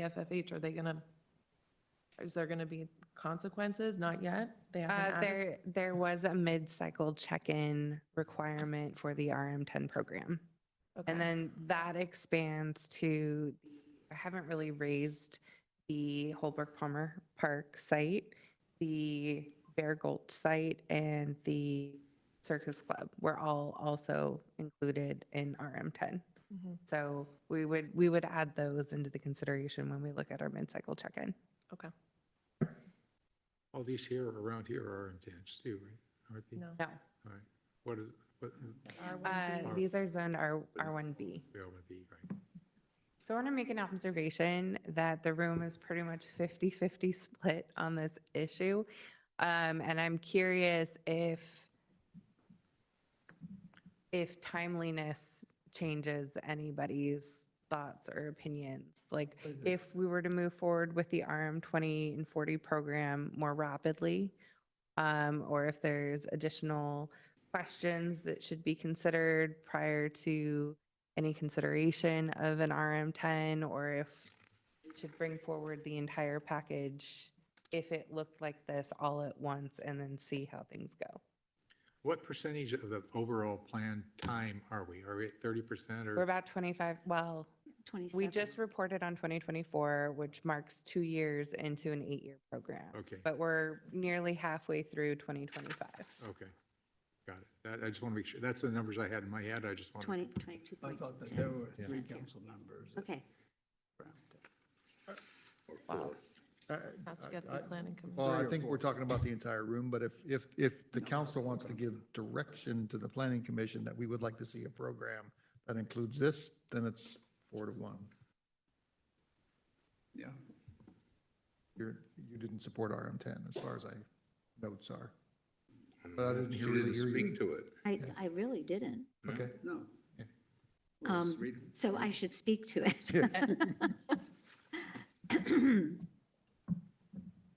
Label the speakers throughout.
Speaker 1: AFFH, are they gonna, is there gonna be consequences? Not yet? They haven't
Speaker 2: Uh,
Speaker 1: added?
Speaker 2: there, there was a mid-cycle check-in requirement for the RM ten program.
Speaker 1: Okay.
Speaker 2: And then that expands to, I haven't really raised the Holbrook Palmer Park site, the Bear Gulch site, and the Circus Club were all also included in RM ten.
Speaker 1: Mhm.
Speaker 2: So we would, we would add those into the consideration when we look at our mid-cycle check-in.
Speaker 1: Okay,
Speaker 3: All these here, around here are intense too, right? Aren't they?
Speaker 1: no.
Speaker 2: No,
Speaker 3: All right. What is, what,
Speaker 2: uh,
Speaker 1: R1B.
Speaker 2: these are zoned R, R one B.
Speaker 3: we all would be, right?
Speaker 2: So I want to make an observation that the room is pretty much 50-50 split on this issue. Um, And I'm curious if, if timeliness changes anybody's thoughts or opinions. Like, if we were to move forward with the RM 20 and 40 program more rapidly, um, or if there's additional questions that should be considered prior to any consideration of an RM 10, or if we should bring forward the entire package if it looked like this all at once and then see how things go.
Speaker 3: What percentage of the overall plan time are we? Are we at thirty percent
Speaker 2: We're
Speaker 3: or?
Speaker 2: about 25, well, we just reported on 2024, which marks two years into an eight-year program.
Speaker 3: Okay,
Speaker 2: But we're nearly halfway through 2025.
Speaker 3: okay. Got it. That, I just want to make sure. That's the numbers I had in my head. I just want to.
Speaker 4: 20, 22
Speaker 5: I
Speaker 4: point.
Speaker 5: thought that there were three
Speaker 4: Yeah.
Speaker 5: council members. that
Speaker 4: Okay,
Speaker 5: frowned at it.
Speaker 1: Has to go through planning
Speaker 6: Well,
Speaker 1: commission.
Speaker 6: I
Speaker 5: Uh, Three or
Speaker 6: think we're
Speaker 5: four.
Speaker 6: talking about the entire room, but if, if, if the council wants to give direction to the planning commission that we would like to see a program that includes this, then it's four to one.
Speaker 5: Yeah,
Speaker 6: You're, you didn't support RM ten, as far as I, notes are. But I didn't hear- really hear you.
Speaker 7: to it.
Speaker 4: I, I really didn't.
Speaker 6: Okay,
Speaker 5: no.
Speaker 4: Um,
Speaker 5: Let's read it.
Speaker 4: So I should speak to it.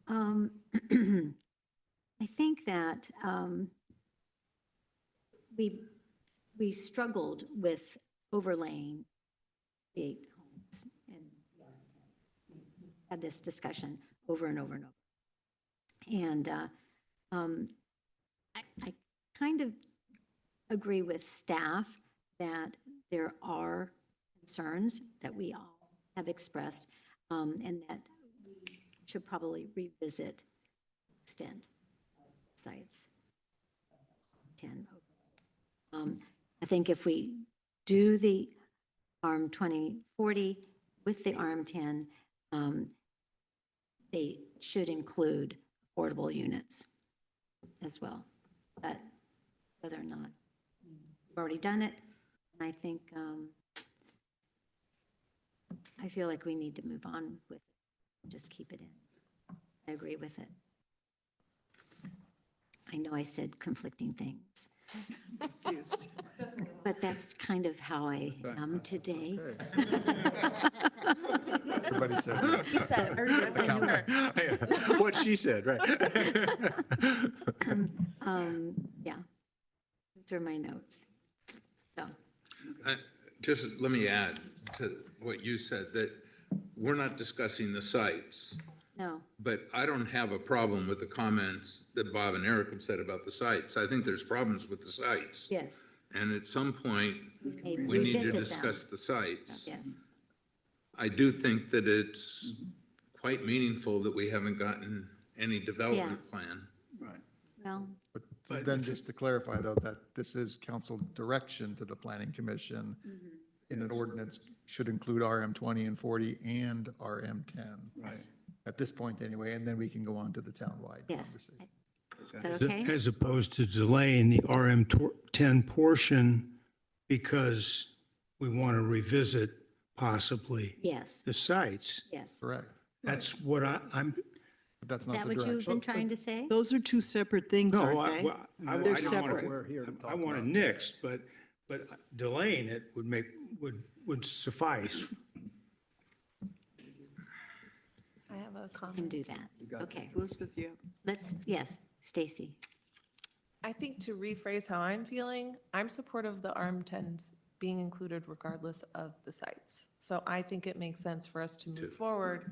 Speaker 4: Um, I think that um, we, we struggled with overlaying the eight homes and had this discussion over and over and over. And uh, um, I, I kind of agree with staff that there are concerns that we all have expressed um, and that we should probably revisit extent sites 10. Um, I think if we do the ARM 2040 with the ARM 10, um, they should include affordable units as well. But whether or not, we've already done it, and I think, um, I feel like we need to move on with, just keep it in. I agree with it. I know I said conflicting things. But that's kind of how I am today.
Speaker 6: everybody said that. Compliment.
Speaker 3: What she said, right?
Speaker 4: Um, Yeah. Those are my notes. So,
Speaker 7: Just let me add to what you said, that we're not discussing the sites,
Speaker 4: no,
Speaker 7: but I don't have a problem with the comments that Bob and Eric have said about the sites. I think there's problems with the sites.
Speaker 4: yes.
Speaker 7: And at some point,
Speaker 4: hey,
Speaker 7: we need to
Speaker 4: revisit them.
Speaker 7: discuss the sites.
Speaker 4: Yes.
Speaker 7: I do think that it's quite meaningful that we haven't gotten any development plan.
Speaker 5: Right.
Speaker 4: Well,
Speaker 6: But then just to clarify though, that this is council direction to the planning commission in an ordinance should include RM twenty and forty and RM ten.
Speaker 5: Right.
Speaker 6: At this point anyway, and then we can go on to the townwide
Speaker 4: yes.
Speaker 6: conversation.
Speaker 4: Is that
Speaker 8: As-
Speaker 4: okay?
Speaker 8: As opposed to delaying the RM tor- 10 portion because we want to revisit possibly
Speaker 4: Yes,
Speaker 8: the sites.
Speaker 4: yes.
Speaker 6: Correct.
Speaker 8: That's what I, I'm,
Speaker 6: But that's
Speaker 4: Is
Speaker 6: not
Speaker 4: that
Speaker 6: the
Speaker 4: what you've been
Speaker 6: direction.
Speaker 4: trying to say?
Speaker 9: Those are two separate things,
Speaker 8: no,
Speaker 9: aren't
Speaker 8: I,
Speaker 9: they?
Speaker 8: well, I I
Speaker 9: They're
Speaker 8: don't want
Speaker 9: separate.
Speaker 8: to.
Speaker 5: We're here to
Speaker 8: I
Speaker 5: talk
Speaker 8: want it
Speaker 5: about-
Speaker 8: nixed, but, but delaying it would make, would, would suffice.
Speaker 1: I have a
Speaker 4: Can
Speaker 1: comment.
Speaker 4: do that. Okay,
Speaker 9: Elizabeth, you have
Speaker 4: let's, yes, Stacy.
Speaker 1: I think to rephrase how I'm feeling, I'm supportive of the ARM tens being included regardless of the sites. So I think it makes sense for us to move forward